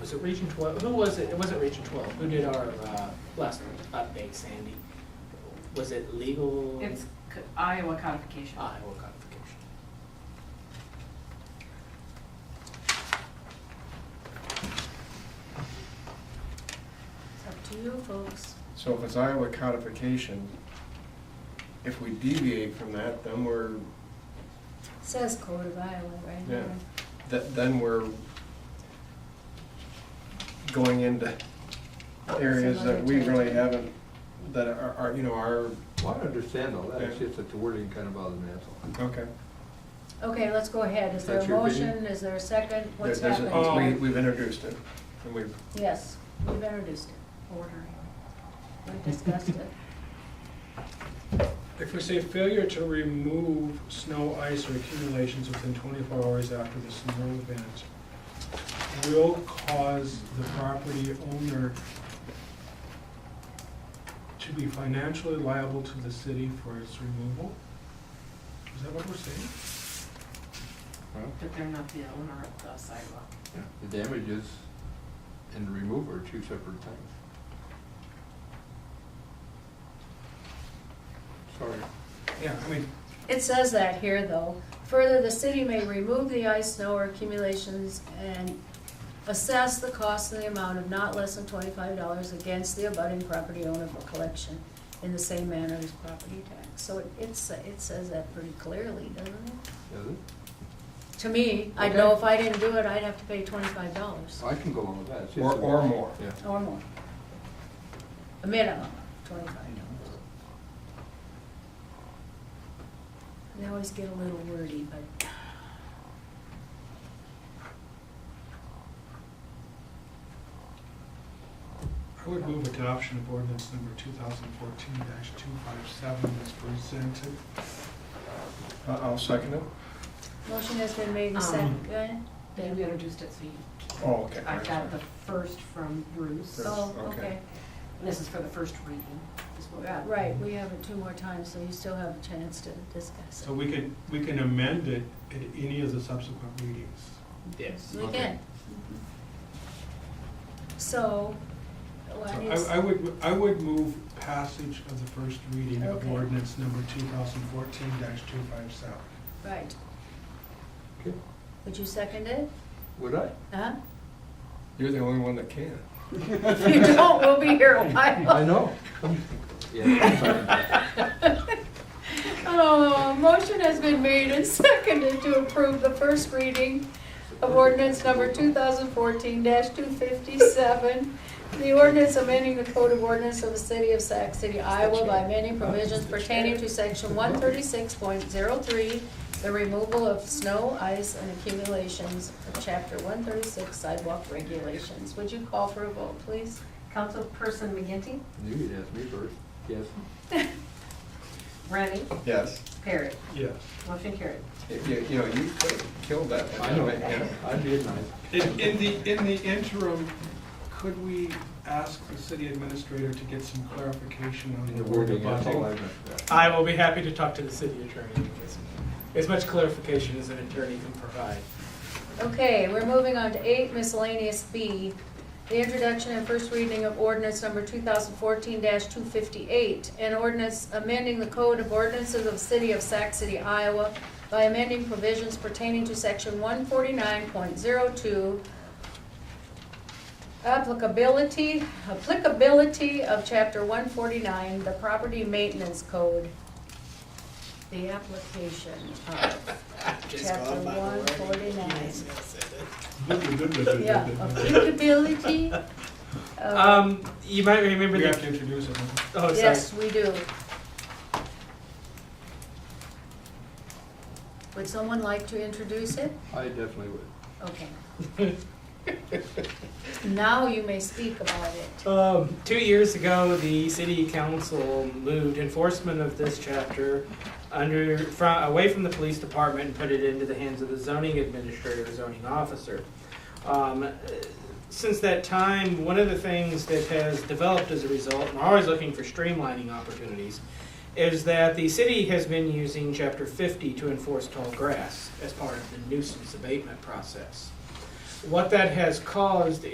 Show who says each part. Speaker 1: was it Region Twelve? Who was it? It wasn't Region Twelve. Who did our uh, last update, Sandy? Was it legal? Ah,
Speaker 2: It's c- Iowa codification.
Speaker 1: Iowa codification.
Speaker 3: It's up to you folks.
Speaker 4: So if it's Iowa codification, if we deviate from that, then we're,
Speaker 3: Says Code of Iowa right
Speaker 4: yeah,
Speaker 3: here.
Speaker 4: th- then we're going into areas that we really haven't, that are, are, you know, are,
Speaker 5: Well, I understand all that, it's
Speaker 4: Yeah.
Speaker 5: just that the wording kind of bothers me, that's all.
Speaker 4: okay.
Speaker 3: Okay, let's go ahead. Is there a
Speaker 5: That's your opinion?
Speaker 3: motion? Is there a second?
Speaker 4: There-
Speaker 3: What's
Speaker 4: there's a-
Speaker 3: happening?
Speaker 4: We, we've introduced it, and we've,
Speaker 3: Yes, we've introduced it.
Speaker 2: Ordering.
Speaker 3: We discussed it.
Speaker 6: If we say failure to remove snow, ice, or accumulations within twenty-four hours after the snow event will cause the property owner to be financially liable to the city for its removal? Is that what we're saying?
Speaker 2: But they're not the owner of the sidewalk.
Speaker 5: The damages and the remove are two separate things. Sorry.
Speaker 6: Yeah, I mean,
Speaker 3: It says that here, though. Further, the city may remove the ice, snow, or accumulations and assess the cost and the amount of not less than twenty-five dollars against the abutting property owner for collection in the same manner as property tax. So it, it's, it says that pretty clearly, doesn't it?
Speaker 5: Is it?
Speaker 3: To me, I'd know
Speaker 5: Okay.
Speaker 3: if I didn't do it, I'd have to pay twenty-five dollars
Speaker 5: I can go along with that. it's just
Speaker 4: or,
Speaker 5: that-
Speaker 4: or more.
Speaker 5: Yeah.
Speaker 3: or more. A minimum of twenty-five dollars. They always get a little wordy, but
Speaker 6: I would move adoption of ordinance number two thousand fourteen two five seven as presented.
Speaker 4: I- I'll second it.
Speaker 3: Motion has been made and seconded. Go ahead.
Speaker 2: They introduced it, so you-
Speaker 4: Oh, okay.
Speaker 2: I've got the first from Bruce.
Speaker 4: Bruce.
Speaker 3: Oh,
Speaker 4: Okay.
Speaker 3: okay.
Speaker 2: This is for the first reading. is what we got.
Speaker 3: Right, we have it two more times, so you still have a chance to discuss
Speaker 6: So we could, we can amend it at any of the subsequent readings.
Speaker 1: Yes.
Speaker 3: it. We
Speaker 5: Okay.
Speaker 3: can. So,
Speaker 6: So
Speaker 3: what is,
Speaker 6: I, I would, I would move passage of the first reading of
Speaker 3: Okay.
Speaker 6: ordinance number two thousand fourteen two five seven.
Speaker 3: right,
Speaker 5: Okay.
Speaker 3: would you second it?
Speaker 5: Would I?
Speaker 3: Huh?
Speaker 4: You're the only one that can.
Speaker 3: If you don't, we'll be here a while.
Speaker 5: I know. Yeah.
Speaker 3: Oh, motion has been made and seconded to approve the first reading of ordinance number two thousand fourteen two fifty-seven. The ordinance amending the code of ordinance of the city of Sac City, Iowa by amending provisions pertaining to section one thirty-six point zero three, the removal of snow, ice, and accumulations of chapter one thirty-six sidewalk regulations. Would you call for a vote, please?
Speaker 2: Councilperson McGinty,
Speaker 5: You could ask me first. Yes.
Speaker 2: Rennie,
Speaker 4: Yes.
Speaker 2: Perry.
Speaker 6: Yes.
Speaker 2: Motion carried.
Speaker 4: You, you- you know, you could have killed that. one.
Speaker 5: I know.
Speaker 4: Yeah.
Speaker 5: I'd be nice.
Speaker 6: In, in the, in the interim, could we ask the city administrator to get some clarification on
Speaker 5: The
Speaker 6: the word
Speaker 5: wording, that's all I
Speaker 6: abutting?
Speaker 5: meant. yeah.
Speaker 1: I will be happy to talk to the city attorney. and get some- As much clarification as an attorney can provide.
Speaker 3: Okay, we're moving on to eight miscellaneous B. The introduction and first reading of ordinance number two thousand fourteen two fifty-eight, an ordinance amending the code of ordinances of the city of Sac City, Iowa by amending provisions pertaining to section one forty-nine point zero two, applicability, applicability of chapter one forty-nine, the property maintenance code. The application of
Speaker 1: Just
Speaker 3: Chapter
Speaker 1: going by the wording.
Speaker 3: 149.
Speaker 1: Yes, yes, it is.
Speaker 6: Good, good, good, good, good,
Speaker 3: yeah,
Speaker 6: good.
Speaker 3: applicability. of-
Speaker 1: Um, you might remember
Speaker 6: We have
Speaker 1: that.
Speaker 6: to introduce it. huh?
Speaker 1: Oh, sorry.
Speaker 3: Yes, we do. Would someone like to introduce it?
Speaker 5: I definitely would.
Speaker 3: Okay. Now you may speak about it.
Speaker 1: Um, two years ago, the city council moved enforcement of this chapter under from, away from the police department and put it into the hands of the zoning administrator, or zoning officer. Um, uh, since that time, one of the things that has developed as a result, and we're always looking for streamlining opportunities, is that the city has been using Chapter 50 to enforce tall grass as part of the nuisance abatement process. What that has caused